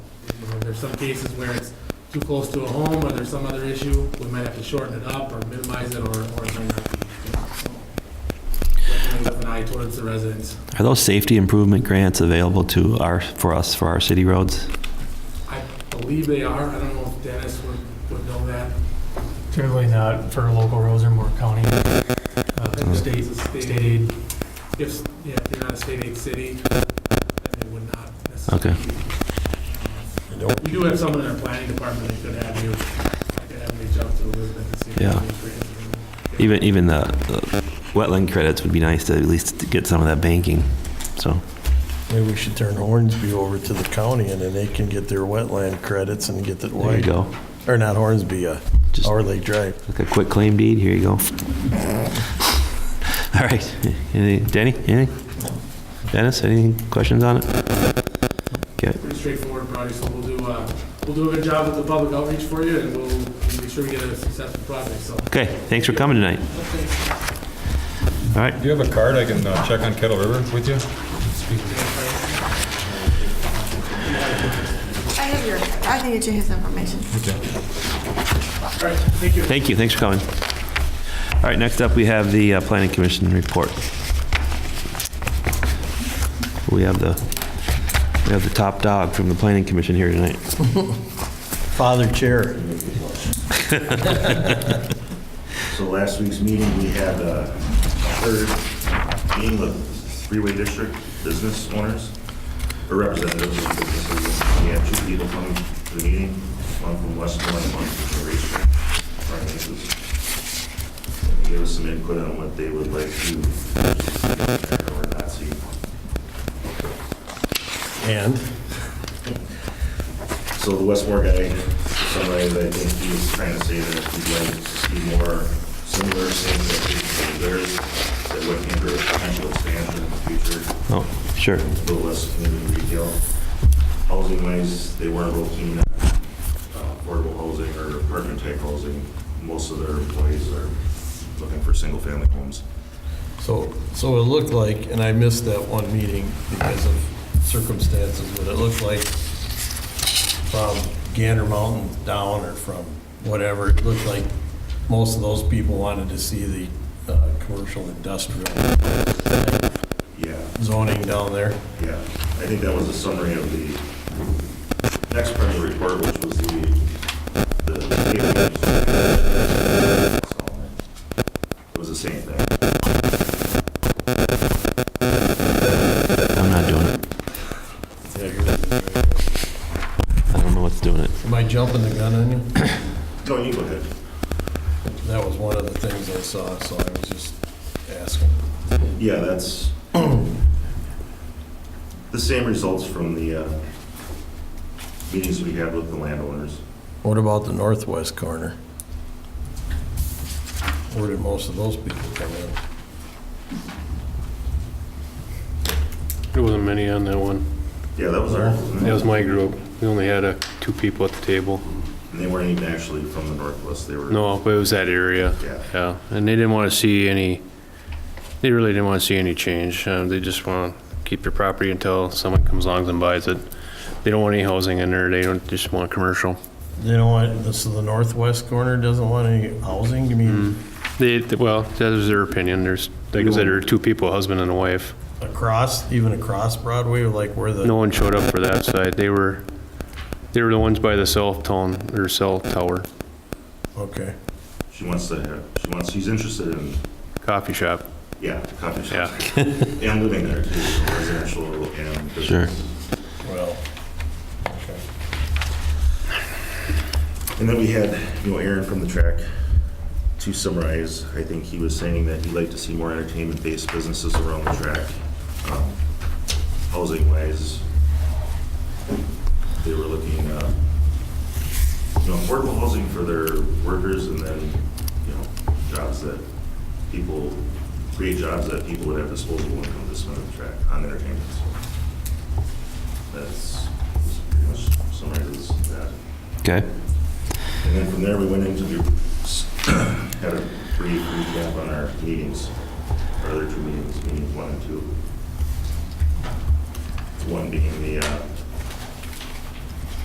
know, there's some cases where it's too close to a home, or there's some other issue, we might have to shorten it up, or minimize it, or, or it might not be. so. Definitely with An eye towards the residents. Are those safety improvement grants available to our, for us, for our city roads? I believe they are, I don't know if Dennis would, would know that. Generally not for local roads or more county, uh, state, It's a state aid. If, yeah, if you're not a state aid city, then they would not necessarily. um, We do have someone in our planning department that could have you, that could have reach out to Elizabeth and see. if Yeah. there's any grants. Even, even the the wetland credits would be nice to at least get some of that banking, so. Maybe we should turn Hornsby over to the county and then they can get their wetland credits and get that There you wide. go. Or not Hornsby, uh, Just Hour Lake Drive. like a quick claim deed, here you go. All right, Any- Danny, anything? Dennis, any questions on it? Pretty straightforward project, so we'll do, uh, we'll do a good job with the public outreach for you and we'll make sure we get a successful project, so. Okay, thanks for coming tonight. All right, Do you have a card I can uh, check on Kettle River with you? I have your, I can get you his information. All right, thank you. thank you, thanks for coming. All right, next up, we have the uh, Planning Commission report. We have the, we have the top dog from the Planning Commission here tonight. Father Chair. So last week's meeting, we had a third meeting with three-way district business owners, or representatives of businesses. We had two people come to the meeting, one from Westmoreland, one from Horatio, our neighbors. And They gave us some input on what they would like to, see or not see. And So the Westmore guy, somebody that I think he was trying to say that he'd like to see more similar things that we can do there that would hinder potential expansion in the future, Oh, sure. a little less community retail. Housing wise, they weren't real keen on uh, affordable housing or apartment type housing. Most of their employees are looking for single family homes. so, so it looked like, and I missed that one meeting because of circumstances, but it looked like from Gander Mountain down or from whatever, it looked like most of those people wanted to see the uh, commercial industrial Yeah. zoning down there. Yeah, I think that was a summary of the next part of the report, which was the, the. It was the same thing. I'm not doing it. I don't know what's doing it. Am I jumping the gun on you? No, you go ahead. That was one of the things I saw, so I was just asking. Yeah, that's the same results from the uh, meetings we had with the landowners. What about the northwest corner? Where did most of those people come in? There wasn't many on that one. Yeah, that was our, That was and my group. We only had uh, two people at the table. they weren't even actually from the northwest, they were. No, but it was that area. Yeah. Yeah, and they didn't want to see any, they really didn't want to see any change. Uh, They just want to keep your property until someone comes along and buys it. They don't want any housing in there. They don't, just want commercial. You know what, this is the northwest corner, doesn't want any housing, you mean They, well, that is their opinion. There's, like I said, there are two people, a husband and a wife. across, even across Broadway, or like where the, No one showed up for that side. They were, they were the ones by the cell tone, or cell tower, okay. She wants to, have- she wants, she's interested in coffee shop. Yeah, coffee Yeah. shop. And living there too, so residential and business. Sure. Well, okay. And then we had, you know, Aaron from the track. To summarize, I think he was saying that he'd like to see more entertainment-based businesses around the track. Um, Housing-wise, they were looking, uh, you know, affordable housing for their workers and then, you know, jobs that people, create jobs that people would have disposable income to spend on the track, on entertainment. So That's that's pretty much summarizes that. Okay, And then from there, we went into the, had a brief recap on our meetings, our other two meetings, meeting one and two. One being the uh,